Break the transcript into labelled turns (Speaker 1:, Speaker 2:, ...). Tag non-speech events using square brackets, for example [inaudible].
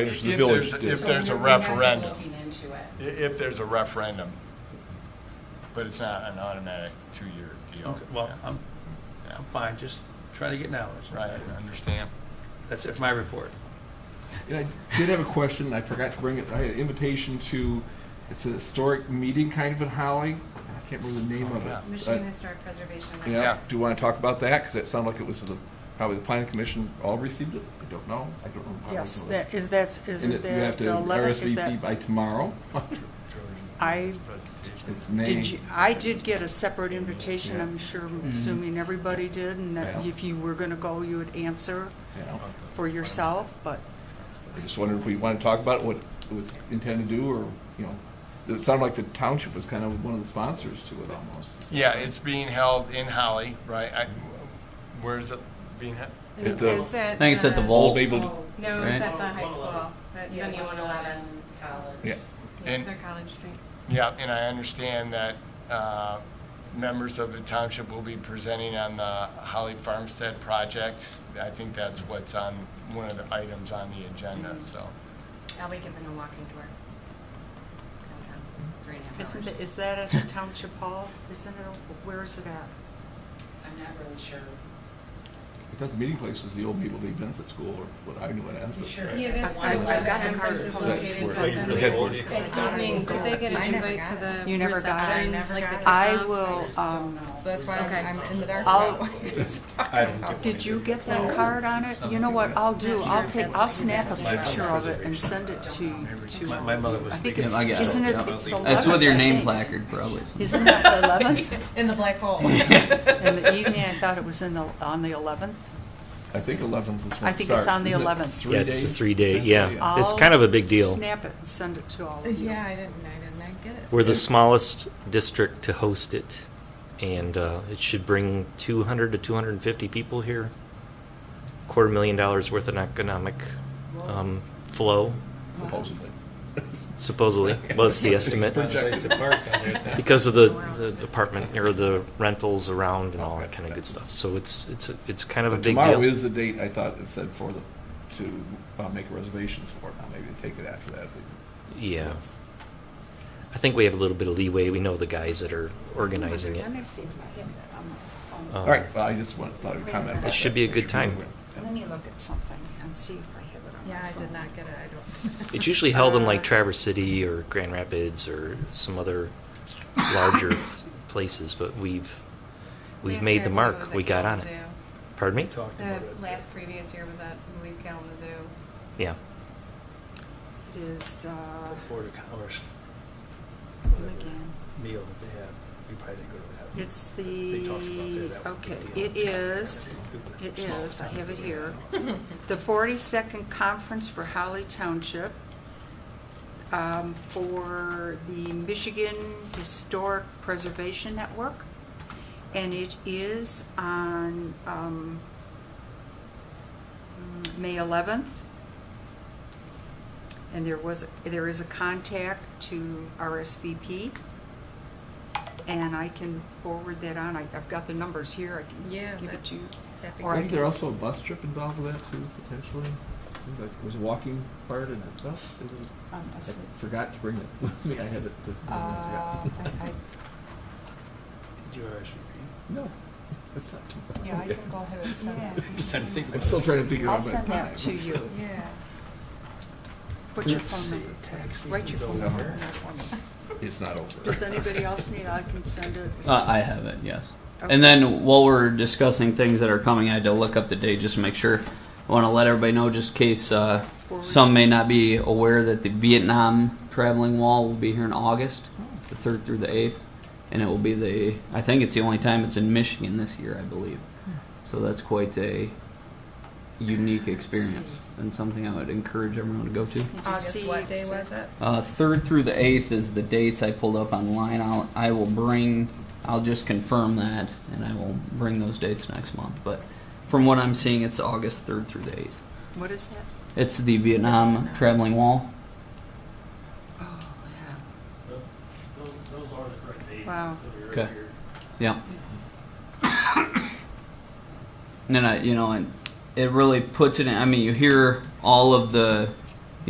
Speaker 1: It's the
Speaker 2: If
Speaker 1: village.
Speaker 2: there's-
Speaker 1: district.
Speaker 2: if there's a
Speaker 3: So we're not
Speaker 2: referendum.
Speaker 3: Looking into it.
Speaker 2: I- If there's a referendum, but it's not an automatic two-year deal.
Speaker 4: Okay, well,
Speaker 2: Yeah.
Speaker 4: I'm, I'm fine, just try to get knowledge.
Speaker 2: Right, I understand.
Speaker 4: That's it for my report.
Speaker 5: And I did have a question. I forgot to bring it. I had an invitation to. It's a historic meeting, kind of in Holly. I can't remember the name of
Speaker 2: Yeah.
Speaker 5: it.
Speaker 3: Michigan Historic Preservation.
Speaker 5: But, yeah.
Speaker 2: Yeah.
Speaker 5: Do you want to talk about that? Because that sounded like it was the probably the planning commission all received it. I don't know. I don't remember. how
Speaker 6: Yes,
Speaker 5: it was.
Speaker 6: that is, that's,
Speaker 5: and
Speaker 6: isn't
Speaker 5: it, you have
Speaker 6: that
Speaker 5: to
Speaker 6: the 11th, is
Speaker 5: RSVP
Speaker 6: that?
Speaker 5: by tomorrow. [laughs]
Speaker 6: I-
Speaker 5: it's May.
Speaker 6: Did you, I did get a separate invitation,
Speaker 5: Yeah.
Speaker 6: I'm sure, assuming everybody did, and that
Speaker 5: Yeah.
Speaker 6: if you were gonna go, you would answer
Speaker 5: you know.
Speaker 6: for yourself, but
Speaker 5: I just wondered if we want to talk about what it was intended to do, or you know, it sounded like the township was kind of one of the sponsors to it almost.
Speaker 2: Yeah, it's being held in Holly, right? I- Where is it being held?
Speaker 5: At the-
Speaker 3: It's at.
Speaker 7: I think it's at the
Speaker 5: Old
Speaker 7: vault.
Speaker 5: Babel-
Speaker 3: No, it's
Speaker 7: Right?
Speaker 3: at the high school, at the new one eleven college.
Speaker 5: Yeah.
Speaker 2: And-
Speaker 3: Their College Street.
Speaker 2: Yeah, and I understand that uh, members of the township will be presenting on the Holly Farmstead project. I think that's what's on, one of the items on the agenda, so.
Speaker 3: I'll be giving a walking tour. Downtown, Three and a half hours.
Speaker 6: isn't, it- is that at the township hall? Isn't it, where is it at?
Speaker 3: I'm not really sure.
Speaker 5: I thought the meeting place was the old people events at school, or what I knew it as. but- Oh,
Speaker 3: Yeah, that's.
Speaker 6: I- I've got the card.
Speaker 5: That's where-
Speaker 3: located.
Speaker 5: the headquarters.
Speaker 3: That evening, did they get an
Speaker 8: I never
Speaker 3: invite to
Speaker 8: got
Speaker 3: the
Speaker 6: You never got it.
Speaker 3: reception?
Speaker 8: Never got
Speaker 3: like the
Speaker 8: it.
Speaker 3: kickoff?
Speaker 6: I will,
Speaker 3: just
Speaker 6: um,
Speaker 3: don't know.
Speaker 8: So that's why I'm-
Speaker 3: Okay.
Speaker 8: I'm in the dark. [laughs]
Speaker 9: [laughs]
Speaker 6: I'll- [laughs]
Speaker 4: I don't get one
Speaker 6: Uh, Did you
Speaker 4: either.
Speaker 6: get that card on it? You know what I'll do, I'll take, I'll snap a picture of it and send it to, to.
Speaker 4: My- my mother was
Speaker 6: I think
Speaker 4: speaking.
Speaker 6: it-
Speaker 7: Yeah, I got it,
Speaker 6: Isn't it,
Speaker 7: yeah.
Speaker 6: it's the
Speaker 7: That's with your
Speaker 6: 11th, I
Speaker 7: name
Speaker 6: think.
Speaker 7: placard, probably.
Speaker 6: Isn't that the
Speaker 8: [laughs]
Speaker 6: eleventh?
Speaker 8: In the black hole. [laughs]
Speaker 6: In the evening, I thought it was in the, on the 11th.
Speaker 5: I think 11th is when it starts.
Speaker 6: I think it's on the
Speaker 5: isn't it?
Speaker 6: 11th.
Speaker 5: Three
Speaker 9: Yeah, it's the
Speaker 5: days,
Speaker 9: three-day,
Speaker 5: potentially?
Speaker 9: yeah. It's kind of a big deal.
Speaker 6: I'll snap it and send it to all of you.
Speaker 8: Yeah, I didn't, I did not get it.
Speaker 9: We're the smallest district to host it, and uh, it should bring 200 to 250 people here. Quarter million dollars worth of economic um, flow,
Speaker 5: Supposedly.
Speaker 9: supposedly. Well, it's the
Speaker 5: It's
Speaker 9: estimate.
Speaker 4: Found a place to park down there at that-
Speaker 9: Because of the, the apartment, or the rentals around and all that kind of good stuff. So it's, it's, it's kind of a
Speaker 5: But
Speaker 9: big deal.
Speaker 5: Tomorrow is the date I thought it said for the, to uh, make reservations for. Now maybe they take it after that. if they-
Speaker 9: Yeah. I think we have a little bit of leeway. We know the guys that are organizing it.
Speaker 6: Let me see if I have that on my phone.
Speaker 5: All
Speaker 9: Um,
Speaker 5: right, well, I just want, thought I'd comment. about
Speaker 9: It should
Speaker 5: that.
Speaker 9: be a good
Speaker 5: It
Speaker 9: time.
Speaker 5: Yeah.
Speaker 6: Let me look at something and see if I have it on my
Speaker 8: Yeah, I did
Speaker 6: phone.
Speaker 8: not get it, I don't.
Speaker 9: [laughs] It's usually held in like
Speaker 6: Uh,
Speaker 9: Traverse City or Grand Rapids or some other larger places, but we've, we've
Speaker 3: Last
Speaker 9: made
Speaker 3: year
Speaker 9: the
Speaker 3: I believe was
Speaker 9: mark.
Speaker 3: at
Speaker 9: We got on it.
Speaker 3: Kalamazoo.
Speaker 9: Pardon me?
Speaker 4: Talked about it.
Speaker 3: The last previous year was at, I believe, Kalamazoo.
Speaker 9: Yeah.
Speaker 6: It is, uh,
Speaker 4: Board of Commerce
Speaker 6: again.
Speaker 4: meal that they have. You probably didn't go to that.
Speaker 6: It's
Speaker 4: They
Speaker 6: the,
Speaker 4: talked about that. That was a
Speaker 6: okay,
Speaker 4: big deal.
Speaker 6: it is, it is, I have it here. [laughs] The 42nd Conference for Holly Township um, for the Michigan Historic Preservation Network. And it is on um, mm, May 11th. And there was, there is a contact to RSVP. And I can forward that on. I- I've got the numbers here. I
Speaker 8: Yeah,
Speaker 6: can give it
Speaker 8: that-
Speaker 6: to you.
Speaker 8: that'd be
Speaker 6: Or I
Speaker 5: Isn't
Speaker 6: can-
Speaker 5: there also a bus trip involved with that too, potentially? I think that was a walking part in it. Oh, it was-
Speaker 6: Um,
Speaker 5: I
Speaker 6: I see.
Speaker 5: forgot to bring it [laughs] with me. I had it. to-
Speaker 6: Uh, I, I,
Speaker 4: Did you RSVP?
Speaker 5: No, it's not tomorrow.
Speaker 6: yeah, I can go ahead and send that.
Speaker 4: I'm just trying to think
Speaker 5: I'm
Speaker 4: about
Speaker 5: still
Speaker 4: it.
Speaker 5: trying to figure
Speaker 6: I'll
Speaker 5: out my time.
Speaker 6: send that to you.
Speaker 3: [laughs]
Speaker 6: [laughs]
Speaker 8: Yeah.
Speaker 6: Put your
Speaker 5: Let's
Speaker 6: phone
Speaker 5: see,
Speaker 6: number,
Speaker 4: tax
Speaker 6: write your phone
Speaker 4: season's
Speaker 6: number
Speaker 4: over.
Speaker 6: in there for me.
Speaker 5: It's not over.
Speaker 6: Does anybody [laughs] else need, I can send it.
Speaker 7: Uh, I have it, yes.
Speaker 6: Okay.
Speaker 7: And then while we're discussing things that are coming, I had to look up the date just to make sure. I want to let everybody know, just in case uh,
Speaker 6: Forward.
Speaker 7: some may not be aware, that the Vietnam traveling wall will be here in August, the 3rd through the 8th. And it will be the, I think it's the only time it's in Michigan this year, I believe. So that's quite a unique experience and something I would encourage everyone to go to.
Speaker 6: Did you
Speaker 8: August,
Speaker 6: see
Speaker 8: what day was it?
Speaker 7: Uh, third through the eighth is the dates I pulled up online. I'll, I will bring, I'll just confirm that, and I will bring those dates next month. But from what I'm seeing, it's August third through the eighth.
Speaker 6: What is that?
Speaker 7: It's the Vietnam traveling wall.
Speaker 6: Oh,
Speaker 10: Those, those are the correct dates.
Speaker 6: Wow.
Speaker 10: So we were
Speaker 7: Okay.
Speaker 10: here.
Speaker 7: Yeah. [coughs] And I, you know, and it really puts it in. I mean, you hear all of the